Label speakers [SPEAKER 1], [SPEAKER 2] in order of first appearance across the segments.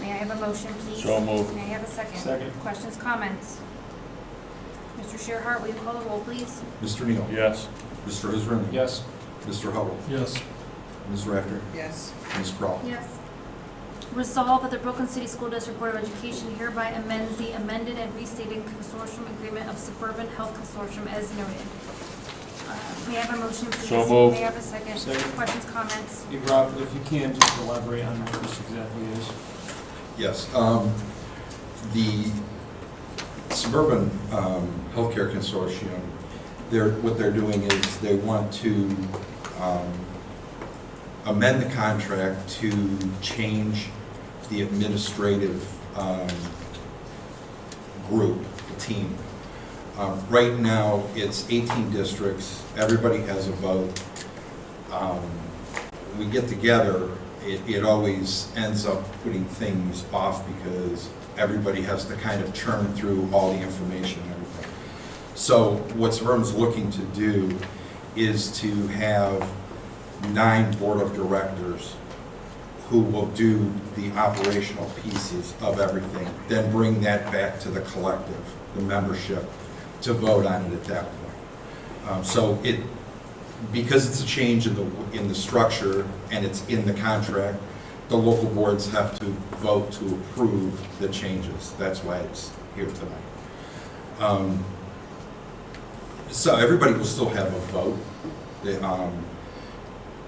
[SPEAKER 1] May I have a motion, please?
[SPEAKER 2] So moved.
[SPEAKER 1] May I have a second?
[SPEAKER 3] Second.
[SPEAKER 1] Questions, comments? Mr. Shearhart, will you call the roll, please?
[SPEAKER 4] Mr. Neal?
[SPEAKER 2] Yes.
[SPEAKER 4] Mr. Israani?
[SPEAKER 3] Yes.
[SPEAKER 4] Mr. Hubble?
[SPEAKER 3] Yes.
[SPEAKER 4] Ms. Rafter?
[SPEAKER 5] yes,
[SPEAKER 4] Ms. Crawl?
[SPEAKER 1] Yes. Resolve that the Brooklyn City School District Board of Education hereby amends the amended and restated consortium agreement of Suburban Health Consortium as noted. Uh, May I have a motion, please?
[SPEAKER 2] So moved.
[SPEAKER 1] May I have a second?
[SPEAKER 3] Second.
[SPEAKER 1] Questions, comments?
[SPEAKER 3] Hey, Rob, if you can, just elaborate on what this exactly is.
[SPEAKER 4] Yes, um, the Suburban um, Healthcare Consortium, they're, what they're doing is they want to um, amend the contract to change the administrative um, group, team. Um, Right now, it's 18 districts, everybody has a vote. Um, we get together, it, it always ends up putting things off because everybody has to kind of churn through all the information and everything. So what Suburban's looking to do is to have nine board of directors who will do the operational pieces of everything, then bring that back to the collective, the membership, to vote on it at that point. Um, So it, because it's a change in the, in the structure and it's in the contract, the local boards have to vote to approve the changes. That's why it's here tonight. Um, So everybody will still have a vote. The, um,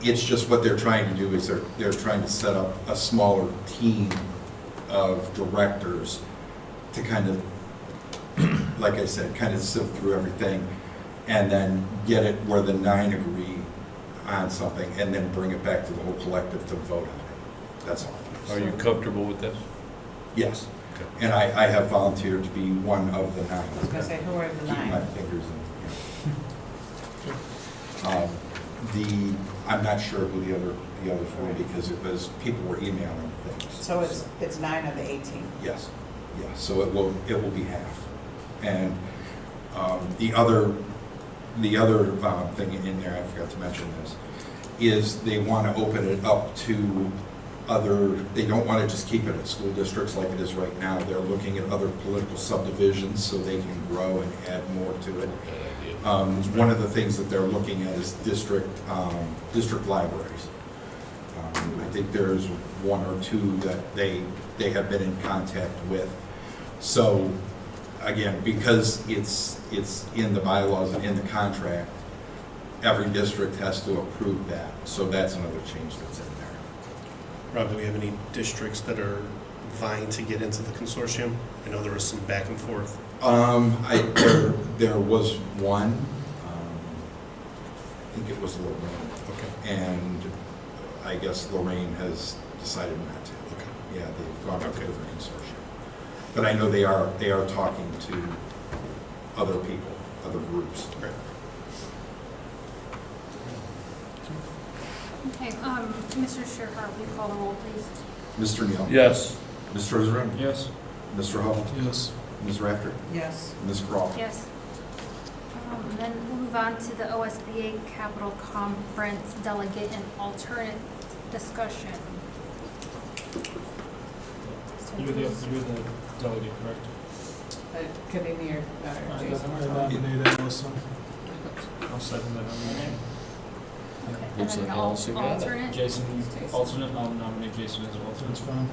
[SPEAKER 4] It's just what they're trying to do is they're, they're trying to set up a smaller team of directors to kind of, like I said, kind of sift through everything and then get it where the nine agree on something, and then bring it back to the whole collective to vote on it. That's all.
[SPEAKER 2] Are you comfortable with this?
[SPEAKER 4] Yes.
[SPEAKER 2] Okay.
[SPEAKER 4] And I, I have volunteered to be one of the nine.
[SPEAKER 5] I was gonna say, who are the
[SPEAKER 4] Keep my
[SPEAKER 5] nine?
[SPEAKER 4] fingers in. Um, The, I'm not sure who the other, the others were, because it was, people were emailing things.
[SPEAKER 5] So it's, it's nine of the eighteen.
[SPEAKER 4] Yes, yes, so it will, it will be half. And um, the other, the other uh, thing in there, I forgot to mention this, is they want to open it up to other, they don't want to just keep it at school districts like it is right now. They're looking at other political subdivisions so they can grow and add more to it. Um, One of the things that they're looking at is district, um, district libraries. Um, I think there's one or two that they, they have been in contact with. So, again, because it's, it's in the bylaws and in the contract, every district has to approve that. So that's another change that's in there.
[SPEAKER 6] Rob, do we have any districts that are vying to get into the consortium? I know there was some back and forth.
[SPEAKER 4] Um, I, there, there was one, um, I think it was Lorraine,
[SPEAKER 6] Okay.
[SPEAKER 4] and I guess Lorraine has decided not to.
[SPEAKER 6] Okay.
[SPEAKER 4] Yeah, they've gone out to
[SPEAKER 6] Okay.
[SPEAKER 4] different consortia. But I know they are, they are talking to other people, other groups.
[SPEAKER 6] Great.
[SPEAKER 1] Okay, um, Mr. Shearhart, will you call the roll, please?
[SPEAKER 4] Mr. Neal?
[SPEAKER 2] Yes.
[SPEAKER 4] Mr. Israani?
[SPEAKER 3] Yes.
[SPEAKER 4] Mr. Hubble?
[SPEAKER 3] Yes.
[SPEAKER 4] Ms. Rafter?
[SPEAKER 5] Yes,
[SPEAKER 4] Ms. Crawl?
[SPEAKER 1] Yes. Um, and Then we'll move on to the OSBA Capital Conference Delegate and Alternate Discussion. So
[SPEAKER 3] You're the, you're
[SPEAKER 1] who's-
[SPEAKER 3] the delegate, correct?
[SPEAKER 5] Uh, could any of your, uh, Jason or
[SPEAKER 3] I nominate Allison. I'll second that nomination.
[SPEAKER 1] okay, and
[SPEAKER 2] Looks
[SPEAKER 1] then
[SPEAKER 2] like
[SPEAKER 1] the al-
[SPEAKER 2] Allison got it.
[SPEAKER 1] alternate?
[SPEAKER 3] Jason, alternate, I'll nominate Jason as alternate. That's fine.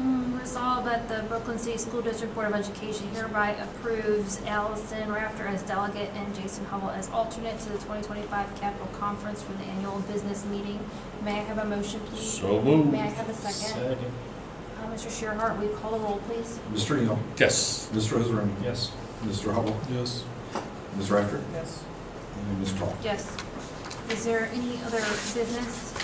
[SPEAKER 1] Mm, Resolve that the Brooklyn City School District Board of Education hereby approves Allison Rafter as delegate and Jason Hubble as alternate to the 2025 Capital Conference for the annual business meeting. May I have a motion, please?
[SPEAKER 2] So moved.
[SPEAKER 1] May I have a second?
[SPEAKER 3] Second.
[SPEAKER 1] Uh, Mr. Shearhart, will you call the roll, please?
[SPEAKER 4] Mr. Neal?
[SPEAKER 2] Yes.
[SPEAKER 4] Mr. Israani?
[SPEAKER 3] Yes.
[SPEAKER 4] Mr. Hubble?
[SPEAKER 3] Yes.
[SPEAKER 4] Ms. Rafter?
[SPEAKER 5] yes,
[SPEAKER 4] And Ms. Crawl?
[SPEAKER 1] Yes. Is there any other business?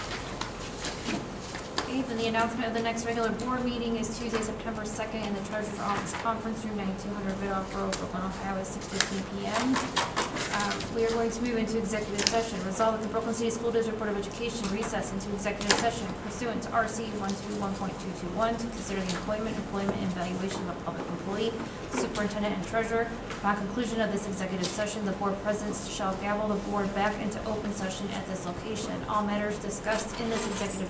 [SPEAKER 1] Okay, then the announcement of the next regular board meeting is Tuesday, September 2nd, in the Treasurer's Office Conference Room, 9200 Bidoff Road, Brooklyn, Ohio, at 6:15 PM. Um, We are going to move into executive session. Resolve that the Brooklyn City School District Board of Education recess into executive session pursuant to RC 121.221 to consider the employment, employment, and valuation of a public employee, superintendent, and treasurer. Upon conclusion of this executive session, the board president shall gavel the board back into open session at this location. All matters discussed in this executive